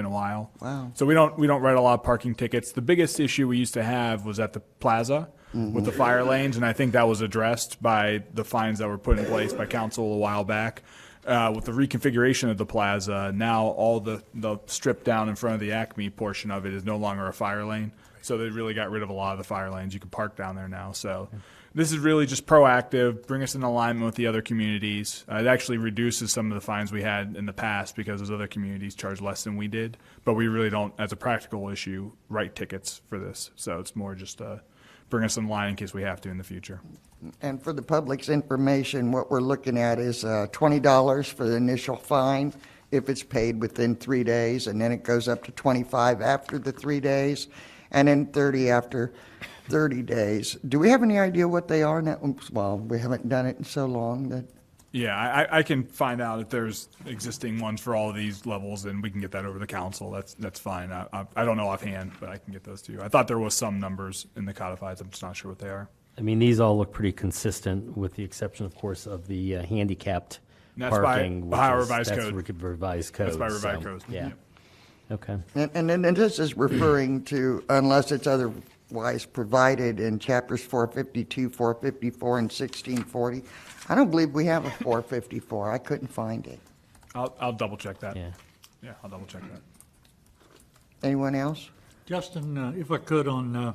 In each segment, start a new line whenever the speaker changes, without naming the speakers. in a while.
Wow.
So we don't we don't write a lot of parking tickets. The biggest issue we used to have was at the plaza with the fire lanes, and I think that was addressed by the fines that were put in place by council a while back. Uh, with the reconfiguration of the plaza, now all the the strip down in front of the Acme portion of it is no longer a fire lane. So they really got rid of a lot of the fire lanes. You can park down there now. So this is really just proactive, bring us in alignment with the other communities. Uh, it actually reduces some of the fines we had in the past because those other communities charge less than we did. But we really don't, as a practical issue, write tickets for this. So it's more just uh, bring us in line in case we have to in the future.
And for the public's information, what we're looking at is uh, $20 for the initial fine if it's paid within three days, and then it goes up to 25 after the three days, and then 30 after 30 days. Do we have any idea what they are now? Oops, Well, we haven't done it in so long that,
Yeah, I, I- I can find out if there's existing ones for all of these levels, and we can get that over the council. That's that's fine. I, I, I don't know offhand, but I can get those to you. I thought there was some numbers in the codifieds. I'm just not sure what they are.
I mean, these all look pretty consistent, with the exception, of course, of the uh, handicapped
And that's by
parking. which
Ohio
is-
revised
that's
code.
re- Revised code.
That's by revised
so,
codes.
um, Yeah.
Yep.
Okay.
and- and then and this is referring to, unless it's otherwise provided in chapters 452, 454, and 1640. I don't believe we have a 454. I couldn't find it.
I'll, I'll double check that.
Yeah.
Yeah, I'll double check that.
Anyone else?
Justin, uh, if I could, on uh,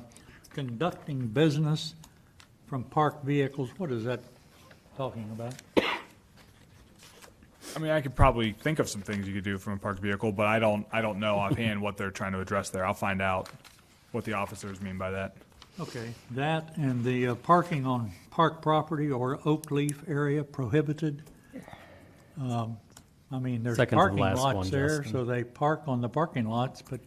conducting business from parked vehicles, what is that talking about?
I mean, I could probably think of some things you could do from a parked vehicle, but I don't, I don't know offhand what they're trying to address there. I'll find out what the officers mean by that.
Okay, that and the uh, parking on park property or oak leaf area prohibited. Um, I mean, there's
Second to the
parking
last
lots
one,
there,
Justin.
so they park on the parking lots, but,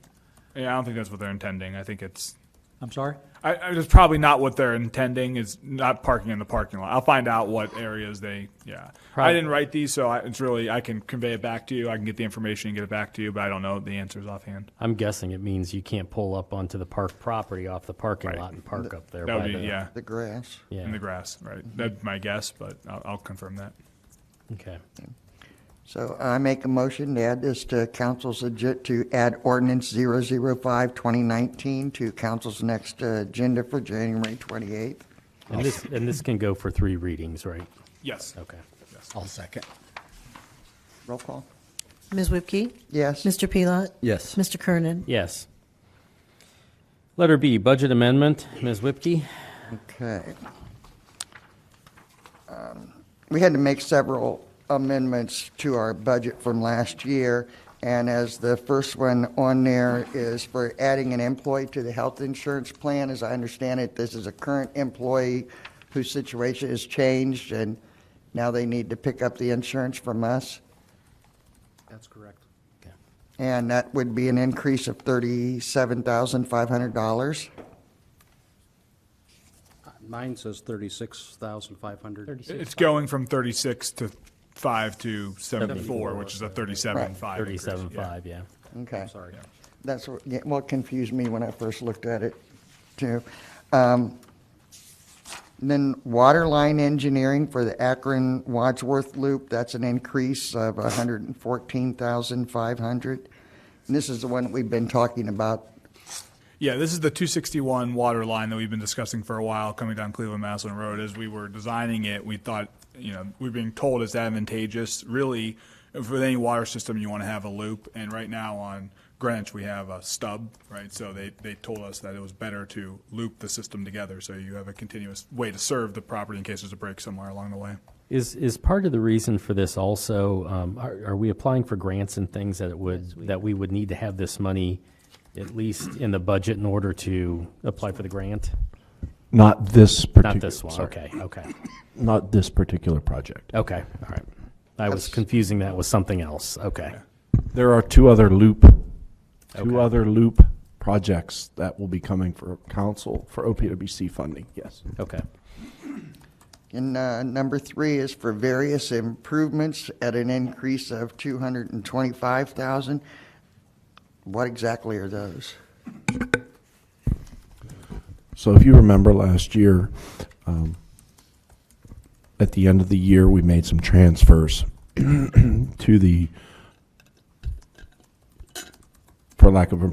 Yeah, I don't think that's what they're intending. I think it's,
I'm sorry?
I, I, it's probably not what they're intending is not parking in the parking lot. I'll find out what areas they, yeah. I
Probably.
didn't write these, so I, it's really, I can convey it back to you. I can get the information and get it back to you, but I don't know the answers offhand.
I'm guessing it means you can't pull up onto the park property off the parking lot and park up there.
That would
by
be,
the-
yeah,
The grass.
in
Yeah, Mm-hmm.
the grass, right? That's my guess, but I'll, I'll confirm that.
okay.
So I make a motion to add this to council's, agi- to add ordinance 005, 2019 to council's next uh, agenda for January 28th.
And this, and this can go for three readings, right?
Yes.
Okay.
I'll second.
Roll call.
Ms. Whipke?
Yes.
Mr. Pelot?
Yes.
Mr. Kernan?
Yes. Letter B, budget amendment, Ms. Whipke?
Okay. Um, We had to make several amendments to our budget from last year, and as the first one on there is for adding an employee to the health insurance plan. As I understand it, this is a current employee whose situation has changed, and now they need to pick up the insurance from us.
That's correct.
And that would be an increase of thirty-seven thousand five hundred dollars.
Uh, Mine says thirty-six thousand five hundred.
It's going from 36 to 5 to 74, which is a 37.5. increase, yeah.
Thirty-seven five, yeah.
Okay.
Sorry.
That's what, yeah, what confused me when I first looked at it, too. Um, Then waterline engineering for the Akron Wadsworth Loop, that's an increase of hundred and fourteen thousand five hundred. And this is the one we've been talking about.
Yeah, this is the 261 water line that we've been discussing for a while coming down Cleveland Maslin Road. As we were designing it, we thought, you know, we've been told it's advantageous. Really, for any water system, you want to have a loop. And right now on Greenwich, we have a stub, right? So they, they told us that it was better to loop the system together so you have a continuous way to serve the property in case there's a break somewhere along the way.
Is, is part of the reason for this also, um, are, are we applying for grants and things that it would, that we would need to have this money at least in the budget in order to apply for the grant?
Not this particular.
Not this one,
sorry.
okay, okay,
Not this particular project.
okay, all right. I was confusing that with something else, okay.
There are two other loop,
Okay.
two other loop projects that will be coming for council for OPWC funding, yes.
Okay.
And uh, number three is for various improvements at an increase of two hundred and twenty-five thousand. What exactly are those?
So if you remember last year, um, at the end of the year, we made some transfers to the for lack of a